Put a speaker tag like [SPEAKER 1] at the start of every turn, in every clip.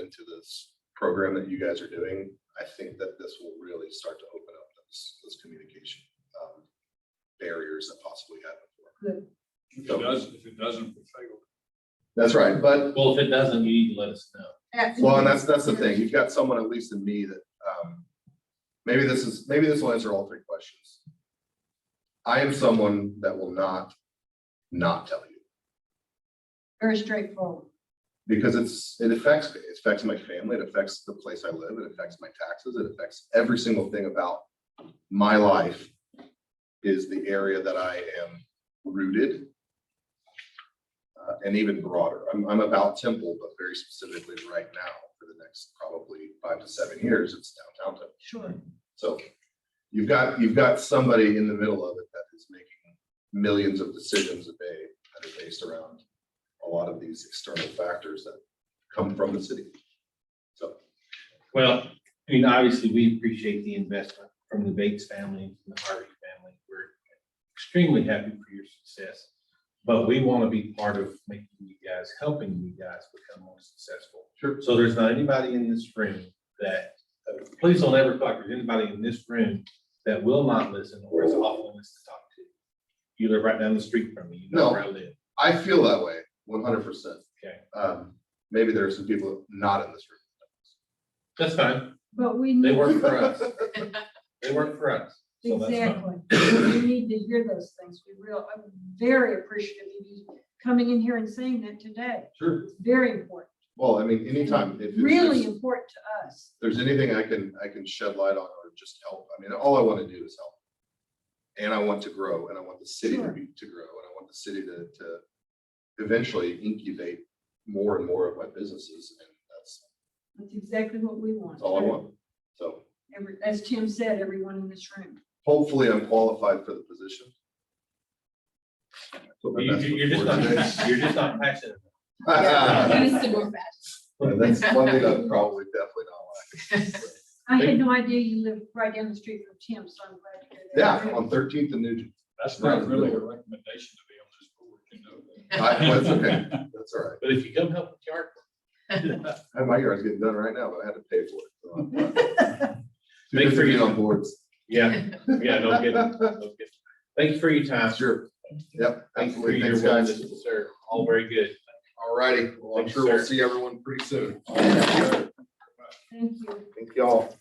[SPEAKER 1] into this program that you guys are doing, I think that this will really start to open up those, those communication um, barriers that possibly had before.
[SPEAKER 2] If it does, if it doesn't, we fail.
[SPEAKER 1] That's right, but
[SPEAKER 3] Well, if it doesn't, you need to let us know.
[SPEAKER 1] Well, and that's, that's the thing, you've got someone, at least in me, that, um, maybe this is, maybe this will answer all three questions. I am someone that will not, not tell you,
[SPEAKER 4] Very straightforward.
[SPEAKER 1] because it's, it affects, me. it affects my family, it affects the place I live, it affects my taxes, it affects every single thing about my life is the area that I am rooted. Uh, and even broader, I'm, I'm about Temple, but very specifically right now, for the next probably five to seven years, it's downtown Temple.
[SPEAKER 4] Sure.
[SPEAKER 1] So you've got, you've got somebody in the middle of it that is making millions of decisions a day that are based around a lot of these external factors that come from the city. So,
[SPEAKER 3] Well, I mean, obviously, we appreciate the investment from the Bates family, from the Harvey family. We're extremely happy for your success. But we want to be part of making you guys, helping you guys become more successful.
[SPEAKER 1] Sure.
[SPEAKER 3] So there's not anybody in this room that, uh, please don't ever talk, there's anybody in this room that will not listen or is off limits to talk to. You live right down the street from me, you know
[SPEAKER 1] No.
[SPEAKER 3] where I live.
[SPEAKER 1] I feel that way, one hundred percent.
[SPEAKER 3] Okay.
[SPEAKER 1] Um, maybe there are some people not in this room.
[SPEAKER 3] That's fine.
[SPEAKER 4] But we
[SPEAKER 3] They
[SPEAKER 4] need,
[SPEAKER 3] work for us. They work for us. So that's fine.
[SPEAKER 4] exactly, we need to hear those things. We real, I'm very appreciative of you coming in here and saying that today.
[SPEAKER 1] Sure.
[SPEAKER 4] It's very important,
[SPEAKER 1] Well, I mean, anytime, if it's-
[SPEAKER 4] really important to us.
[SPEAKER 1] there's anything I can, I can shed light on or just help, I mean, all I want to do is help. And I want to grow and I want the city to
[SPEAKER 4] Sure.
[SPEAKER 1] be, to grow and I want the city to, to eventually incubate more and more of my businesses and that's,
[SPEAKER 4] That's exactly what we want.
[SPEAKER 1] that's all I want. So
[SPEAKER 4] Every, as Tim said, everyone in this room.
[SPEAKER 1] hopefully I'm qualified for the position. Put my
[SPEAKER 3] You,
[SPEAKER 1] best
[SPEAKER 3] you- you're just
[SPEAKER 1] foot
[SPEAKER 3] not,
[SPEAKER 1] forward today.
[SPEAKER 3] you're just not passionate.
[SPEAKER 1] And That's one thing I'm probably definitely not
[SPEAKER 4] I had
[SPEAKER 3] Thank-
[SPEAKER 4] no idea you lived right down the street from Tim, so I'm glad you did
[SPEAKER 1] like.
[SPEAKER 4] that.
[SPEAKER 1] Yeah, on Thirteenth and Nugent.
[SPEAKER 2] That's not really a recommendation to be on this board, you know. that.
[SPEAKER 1] I, that's okay. That's all right.
[SPEAKER 3] But if you come help with yard. work,
[SPEAKER 1] I had my yards getting done right now, but I had to pay for it. so I'm glad. Too
[SPEAKER 3] Make
[SPEAKER 1] busy
[SPEAKER 3] sure you-
[SPEAKER 1] being on boards.
[SPEAKER 3] Yeah, yeah, don't get, don't get. Thank you for your time.
[SPEAKER 1] Sure. Yep,
[SPEAKER 3] Thank you for
[SPEAKER 1] absolutely.
[SPEAKER 3] your
[SPEAKER 1] Thanks,
[SPEAKER 3] willingness
[SPEAKER 1] guys.
[SPEAKER 3] to serve. All very good.
[SPEAKER 1] All righty. Well, I'm
[SPEAKER 3] Thanks,
[SPEAKER 1] sure we'll
[SPEAKER 3] sir.
[SPEAKER 1] see everyone pretty soon.
[SPEAKER 4] Thank you.
[SPEAKER 1] Thank y'all.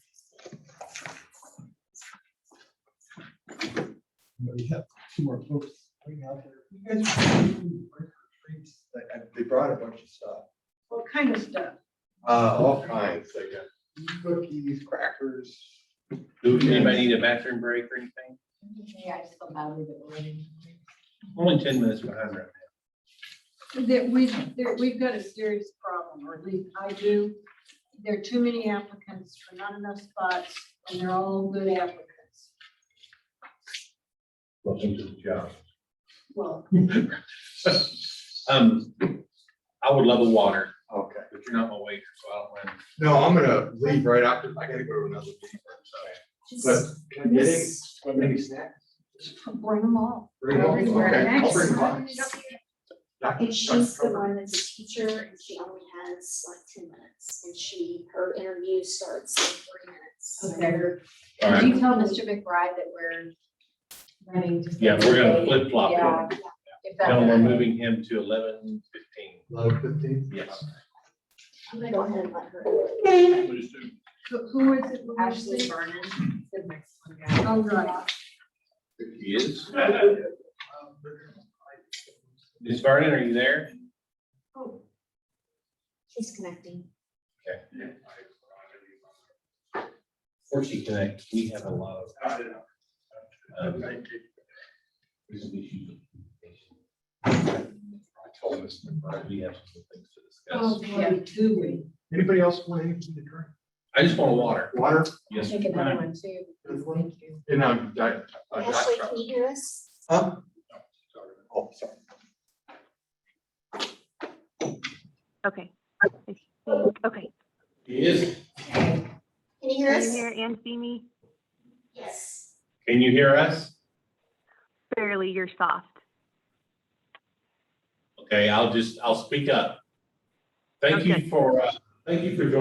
[SPEAKER 5] We have two more folks waiting out there. You guys are doing work retreats, like, I- They brought a bunch of stuff,
[SPEAKER 4] What kind of stuff?
[SPEAKER 5] uh, all kinds, like uh, cookies, crackers.
[SPEAKER 3] Do anybody need a bathroom break or anything?
[SPEAKER 6] Yeah, I just felt badly that we're running.
[SPEAKER 3] Only ten minutes behind right
[SPEAKER 4] That we, there, we've got a serious problem, or at least I do. There are too many applicants for not enough spots, and they're all good applicants.
[SPEAKER 3] now. Welcome to the job.
[SPEAKER 4] Well,
[SPEAKER 3] Um, I would love a water,
[SPEAKER 5] Okay.
[SPEAKER 3] but you're not my waiter, so I don't mind.
[SPEAKER 5] No, I'm gonna leave right after, I gotta go to another meeting. But can I get it? Maybe snack?
[SPEAKER 4] bring them all.
[SPEAKER 5] Bring them all? Okay, I'll bring mine. Not-
[SPEAKER 6] And she's the
[SPEAKER 5] not-
[SPEAKER 6] one that's a teacher and she only has like ten minutes and she, her interview starts in three minutes. So
[SPEAKER 7] Okay.
[SPEAKER 6] we're-
[SPEAKER 3] All
[SPEAKER 7] Did
[SPEAKER 3] right,
[SPEAKER 7] you tell Mr. McBride that we're running? just a
[SPEAKER 3] yeah, we're gonna
[SPEAKER 7] little late?
[SPEAKER 3] flip flop.
[SPEAKER 7] Yeah.
[SPEAKER 3] it.
[SPEAKER 7] If
[SPEAKER 3] Now we're
[SPEAKER 7] that's.
[SPEAKER 3] moving him to eleven fifteen.
[SPEAKER 5] Love fifteen?
[SPEAKER 3] Yes.
[SPEAKER 6] I'm gonna go ahead and let her.
[SPEAKER 2] Please do.
[SPEAKER 4] Who- Who is it? Who is
[SPEAKER 7] Ashley
[SPEAKER 4] it?
[SPEAKER 7] Vernon, the next one down.
[SPEAKER 4] Oh, right.
[SPEAKER 3] He is.
[SPEAKER 5] Um,
[SPEAKER 3] Ms. Vernon, are you there?
[SPEAKER 6] She's connecting.
[SPEAKER 3] Fortunately, Connect, we have a lot of. um, resolution.
[SPEAKER 5] I told this.
[SPEAKER 3] We have some things to discuss.
[SPEAKER 4] Oh, boy, do we?
[SPEAKER 5] Anybody else want anything to drink?
[SPEAKER 3] I just want water.
[SPEAKER 5] Water?
[SPEAKER 3] Yes.
[SPEAKER 7] Take another one too. please. Thank you.
[SPEAKER 5] And I'm, I,
[SPEAKER 3] Oh,
[SPEAKER 5] I.
[SPEAKER 6] Ashley, can you hear us?
[SPEAKER 5] Huh? Oh, sorry.
[SPEAKER 8] Okay. I think- Okay,
[SPEAKER 3] He is.
[SPEAKER 6] Can you hear
[SPEAKER 8] can you
[SPEAKER 6] us?
[SPEAKER 8] hear and see me?
[SPEAKER 6] Yes.
[SPEAKER 3] Can you hear us?
[SPEAKER 8] Barely, you're soft.
[SPEAKER 3] Okay, I'll just, I'll speak up. Thank you
[SPEAKER 8] Okay.
[SPEAKER 3] for, uh, thank you for joining